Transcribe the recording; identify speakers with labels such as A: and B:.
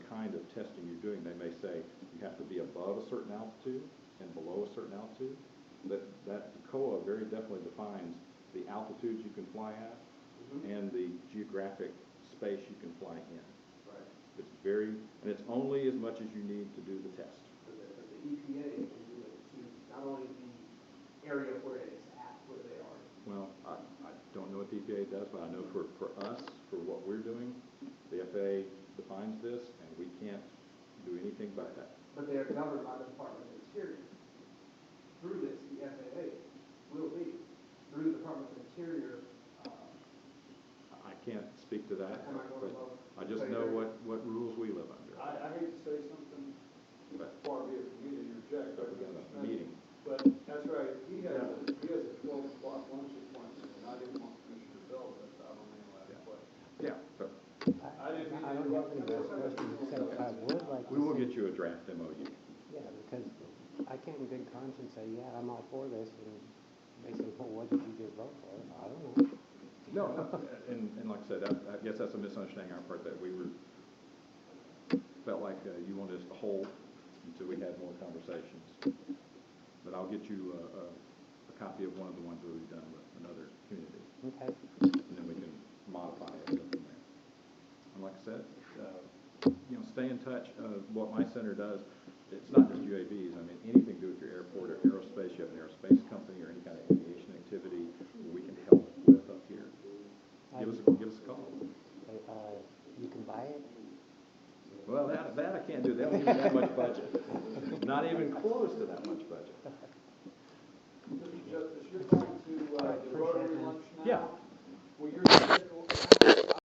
A: testing you're doing, they may say, you have to be above a certain altitude and below a certain altitude. That, that COA very definitely defines the altitudes you can fly at
B: Mm-hmm.
A: and the geographic space you can fly in.
B: Right.
A: It's very, and it's only as much as you need to do the test.
B: But the, but the EPA can do it to not only the area where it's at, where they are,
A: Well, I, I don't know what the EPA does, but I know for, for us, for what we're doing, the FAA defines this, and we can't do anything but that.
B: but they are governed by the Department of Interior. Through this, the FAA will be, through the Department of Interior, uh,
A: I- I can't speak to that,
B: Am I
A: but
B: going above?
A: I just know what, what rules we live
C: I,
A: under.
C: I hate to say something
A: But-
C: far be it from you to interject, but.
A: But we got a meeting.
C: But that's right, he has, a- he has a twelve o'clock lunch appointment, and I didn't want Commissioner Bell, but I don't mean
A: Yeah.
C: that question.
A: Yeah, but
C: I didn't mean to
D: I don't have any
C: interrupt.
D: more questions, except I would like to.
A: we will
D: say-
A: get you a draft MOU.
D: Yeah, because I can't in good conscience say, yeah, I'm all for this, and they say, well, what did you just vote for? I don't know.
A: No, and, and like I said, I, I guess that's a misunderstanding on our part, that we were, felt like uh, you wanted us to hold until we had more conversations. But I'll get you a, a, a copy of one of the ones that we've done with another community,
D: Okay,
A: and then we can modify it and go from there. And like I said, uh, you know, stay in touch, uh, what my center does, it's not just UAVs, I mean, anything to do with your airport or aerospace, you have an aerospace company or any kind of aviation activity we can help with up here. Give us, give us a call.
D: But, uh, you can buy it?
A: Well, that, that I can't do, they don't even have much budget, not even close to that much budget.
C: Mr. Justice, you're going to, uh,
D: Alright,
C: the
B: uh,
D: appreciate
C: Rotary
D: that.
C: lunch now?
A: Yeah.
C: Will your,